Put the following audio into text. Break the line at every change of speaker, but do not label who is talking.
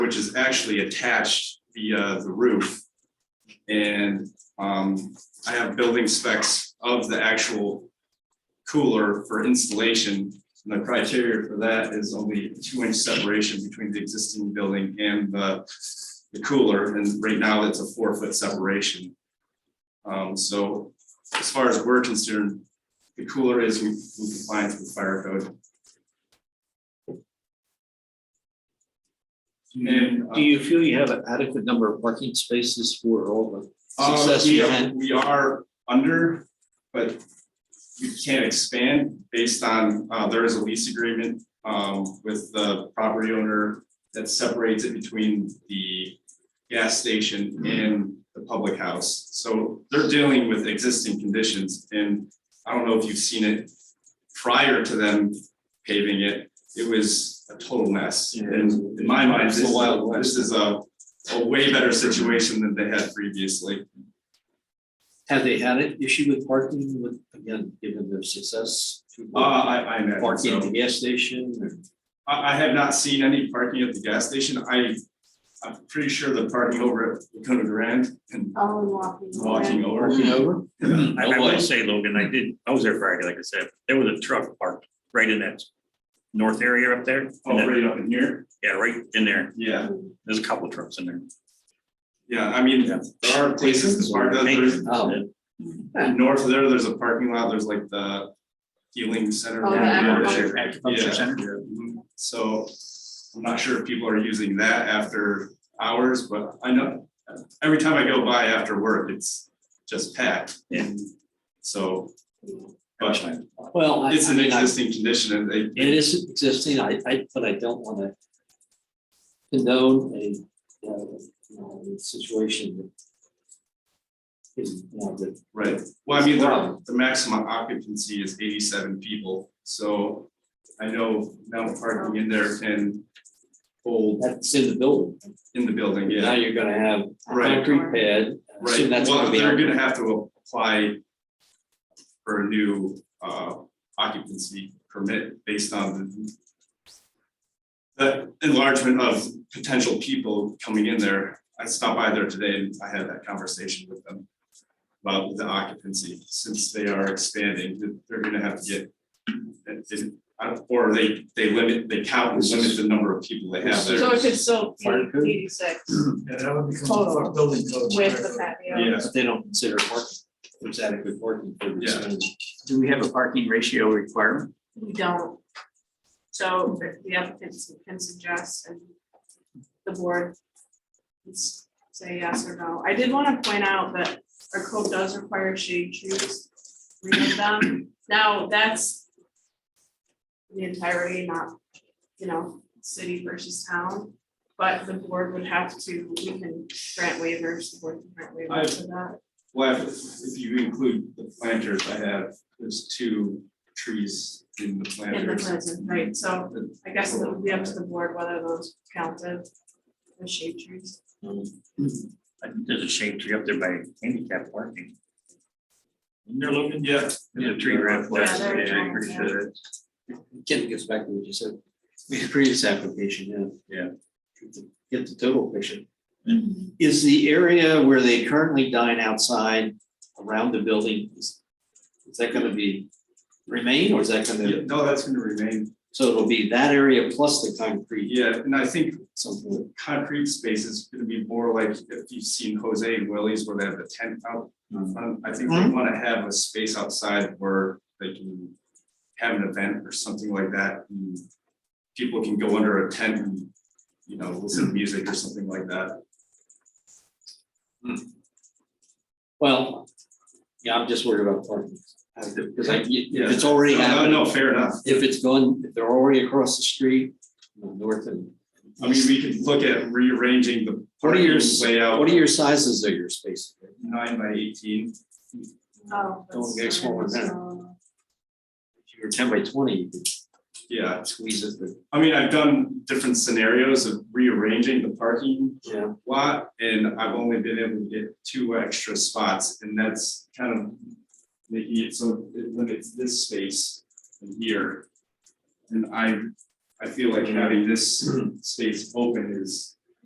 which is actually attached via the roof. And um, I have building specs of the actual cooler for installation. And the criteria for that is only two inch separation between the existing building and the the cooler, and right now it's a four foot separation. Um, so as far as we're concerned, the cooler is in compliance with fire code. And, uh,
Do you feel you have an adequate number of parking spaces for all the
Uh,
success
we
you
are,
had?
we are under, but we can't expand based on, uh, there is a lease agreement, um, with the property owner that separates it between the gas station and the public house. So they're dealing with existing conditions and I don't know if you've seen it prior to them paving it. It was a total mess. And in my mind, this, this is a, a way better situation than they had previously.
Have they had an issue with parking with, again, given their success?
Uh, I, I imagine
Parking at the
so.
gas station or?
I, I have not seen any parking at the gas station. I, I'm pretty sure the parking over at Lacuna Grand and
Oh, and walking.
walking over.
Parking over?
I I
Oh, boy.
will say, Logan, I did, I was there Friday, like I said, there was a truck parked right in that north area up there. and
Oh,
then-
right up in here.
Yeah, right in there.
Yeah,
There's a couple of trucks in there.
yeah. I mean, there are places as far as there's,
Oh.
north of there, there's a parking lot. There's like the healing center.
Oh, the
Yeah.
acupuncture.
Yeah. Mhm. So I'm not sure if people are using that after hours, but I know every time I go by after work, it's just packed.
Yeah.
And So, but
But
Well, I,
It's
I
an
mean, I-
existing condition and they,
it is existing, I, I, but I don't wanna condone a, uh, you know, a situation that is, you know, that
right, well, I mean, the, the maximum occupancy is eighty-seven people, so I know now parking in there can hold
that's in the building.
in the building, yeah.
Now you're gonna have
Right.
concrete pad. I assume
Right,
that's
well,
gonna be
they're
on-
gonna have to apply for a new uh occupancy permit based on the the enlargement of potential people coming in there. I stopped by there today and I had that conversation with them about the occupancy, since they are expanding, that they're gonna have to get that they- I don't- or they they limit, they count and limit the number of people they have there.
So it could still
Fire
be
code?
eighty-six
Yeah, that would become
Total.
a building code.
with the patio.
Yeah.
But they don't consider parking, there's adequate parking for this.
Yeah.
many.
Do we have a parking ratio requirement?
We don't. So if the applicants can suggest and the board can s- say yes or no. I did want to point out that our code does require shade trees, three of them. Now, that's the entirety, not, you know, city versus town. But the board would have to, we can grant waivers, the board can grant waivers for that.
Well, if if you include the planters, I have, there's two trees in the
in the
planters.
prison, right, so I guess it would be up to the board whether those counted as shade trees.
I think There's a shade tree up there by handicap parking. Isn't there, Logan?
Yeah,
There's a tree right up there.
Yeah, there it is.
I'm pretty sure that's-
Ken gets back to what you said, the previous application, yeah.
Yeah.
Yeah. Get the total picture.
Mm-hmm.
Is the area where they currently dine outside around the building, is, is that gonna be remain or is that
yeah,
gonna,
no, that's gonna remain,
so it'll be that area plus the concrete,
yeah, and I think
something,
concrete space is gonna be more like if you've seen Jose and Willie's where they have the tent out.
Mm.
Um, I think we
Mhm.
wanna have a space outside where they can have an event or something like that. and People can go under a tent and, you know, listen to music or something like that.
well, yeah, I'm just worried about parking. Because I, if it's
No,
already
no,
happening.
no, fair enough.
If it's going, if they're already across the street, you know, north and.
I mean, we could look at rearranging the
What are your,
parking
s-
layout,
what are your sizes of your spaces?
nine by eighteen.
Oh.
Don't get
that's-
smaller than that.
so-
If you were ten by twenty, you could
Yeah,
squeeze it, but.
I mean, I've done different scenarios of rearranging the parking
Yeah.
lot, and I've only been able to get two extra spots, and that's kind of making it so it limits this space in here. And I, I feel like having this space open is